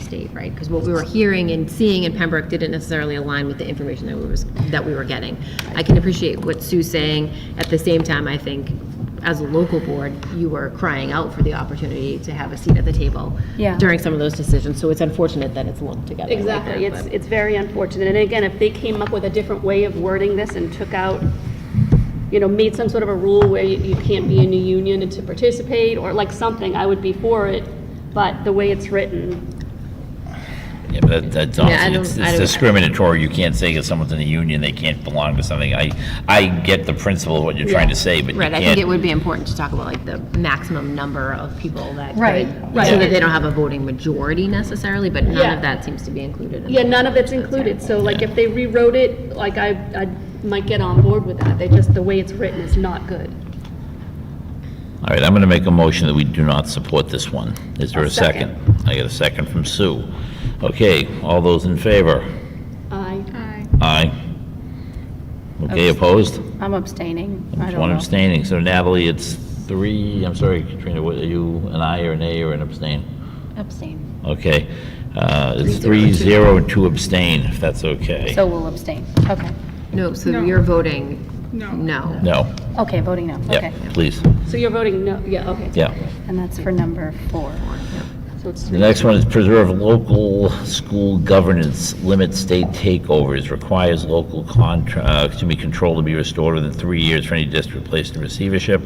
state, right? Because what we were hearing and seeing in Pembroke didn't necessarily align with the information that we was, that we were getting. I can appreciate what Sue's saying. At the same time, I think as a local board, you were crying out for the opportunity to have a seat at the table Yeah. during some of those decisions. So it's unfortunate that it's lumped together. like Exactly, that, it's, but- it's very unfortunate, and again, if they came up with a different way of wording this and took out, you know, made some sort of a rule where you, you can't be in a union to participate, or like something, I would be for it, but the way it's written, Yeah, but that- that's Yeah, I honestly, don't- it's I it's don't- discriminatory. You can't say if someone's in a union, they can't belong to something. I, I get the principle of what you're trying to say, but you Right, I think it can't. would be important to talk about like the maximum number of people that. Right, could- right. So that they don't have a voting majority necessarily, but none Yeah. of that seems to be included. in yeah, the- none of it's included, so like, if they rewrote it, like, I, I might get on board with that, they just, the way it's written is not good. All right, I'm going to make a motion that we do not support this one. Is there I'll a second? I got a second from Sue. Okay, all those in favor? I, Aye. Okay, opposed? I'm abstaining. I There's don't One know. abstaining. So Natalie, it's three, I'm sorry, Katrina, what, are you an aye or an A or an abstain? Abstain. Okay, uh, it's three, zero, and two abstain, if that's okay. So we'll abstain. Okay. No, so you're voting no. No, Okay, voting no. yeah, Okay. please, so you're voting no, yeah, okay, yeah. And that's for number four. so it's, The next one is preserve local school governance, limit state takeovers, requires local contra, uh, excuse me, control to be restored within three years for any district placed in receivership,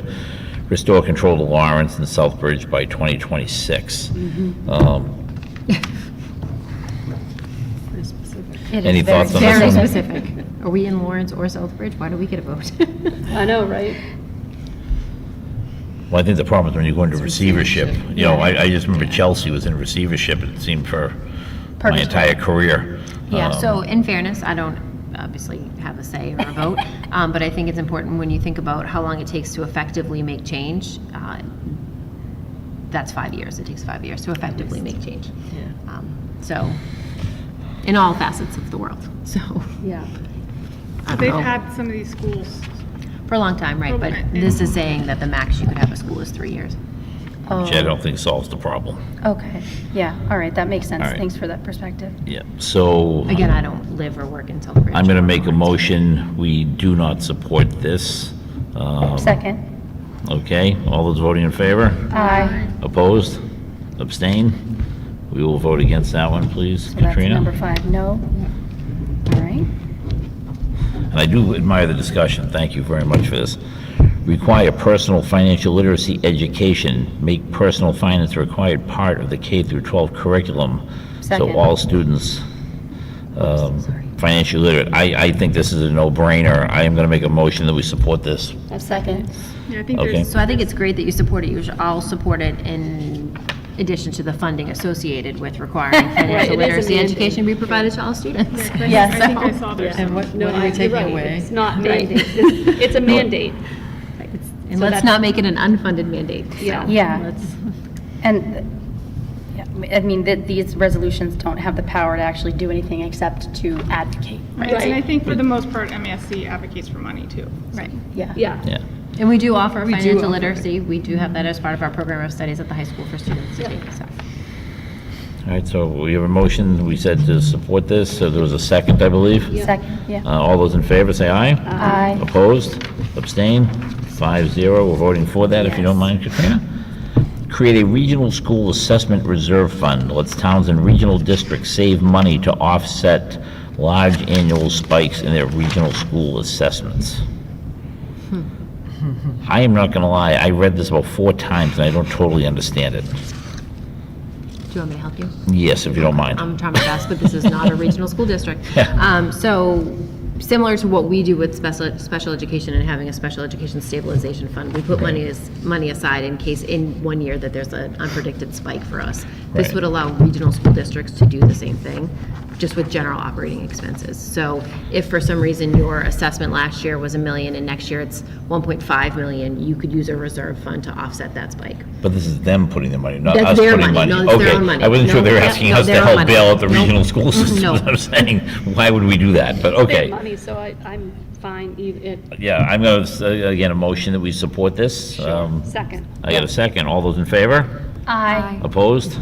restore control to Lawrence and Southbridge by 2026. Mm-hmm. Um, It is Any very- thoughts on this one? specific. Are we in Lawrence or Southbridge? Why do we get a vote? I know, right? Well, I think the problem is when you go into receivership, you know, I, I just remember Chelsea was in receivership, it seemed for my Purposeful. entire career. Yeah, Um, so in fairness, I don't obviously have a say or a vote, um, but I think it's important when you think about how long it takes to effectively make change. uh, That's five years, it takes five years to effectively make change. Um, So, in all facets of the world, so. Yeah. I They've don't know, had some of these schools. for a long time, right, but this is saying that the max you could have a school is three years. Which I don't think solves the problem. Oh, Okay. Yeah. All right. That makes sense. All right. Thanks for that perspective. Yeah, so. Again, I don't live or work in Southbridge. I'm going to make a motion, we do not support this. Um, Second. Okay, all those voting in favor? Aye. Opposed? Abstain? We will vote against that one, please, So that's number Katrina. five. No. All right. And I do admire the discussion, thank you very much for this. Require personal financial literacy education, make personal finance a required part of the K through 12 curriculum, so Second. all students um, financially literate. I, I think this is a no-brainer. I am going to make a motion that we support this. Second. Yeah, I think Okay. there's, So I think it's great that you support it. You should all support it in addition to the funding associated with requiring Right, it is financial in literacy the end. education be provided to all students. I think I saw there's And some. what, what are we You're right, taking away? It's not mandate, it's it's a mandate. And let's not make it an unfunded mandate. so Yeah. Yeah. let's- And, yeah, I mean, that these resolutions don't have the power to actually do anything except to advocate, right? And I think for the most part, MASC advocates for money too. Right. Yeah. Yeah. Yeah. And we do offer do financial offer it. literacy. We do have that as part of our program of studies at the high school for students to take, so. All right, so we have a motion, we said to support this, so there was a second, I believe. Second, yeah. Uh, All those in favor, say aye. Aye. Opposed? Abstain? Five zero, we're voting for that, if you don't mind, Katrina. Create a regional school assessment reserve fund, lets towns and regional districts save money to offset large annual spikes in their regional school assessments. Hmm. I am not going to lie, I read this about four times, and I don't totally understand it. Do you want me to help you? Yes, if you don't mind. I'm trying my best, but this is not a regional school district. Um, So, similar to what we do with special, special education and having a special education stabilization fund, we put money, as- money aside in case in one year that there's an unpredicted spike for us. This Right. would allow regional school districts to do the same thing, just with general operating expenses. So if for some reason your assessment last year was a million and next year it's 1.5 million, you could use a reserve fund to offset that spike. But this is them putting the money, not That's us their putting money. money. No, it's their Okay. own money. I wasn't sure No, they were yeah, asking no, us their to own help money. bail out the Nope. regional school system. No. I'm saying, why would we do that? But Big okay. money, so I, I'm fine, e, even, Yeah, I'm going to, say again, a motion that we support this. Um, second. I got a second. All those in favor? Aye. Opposed?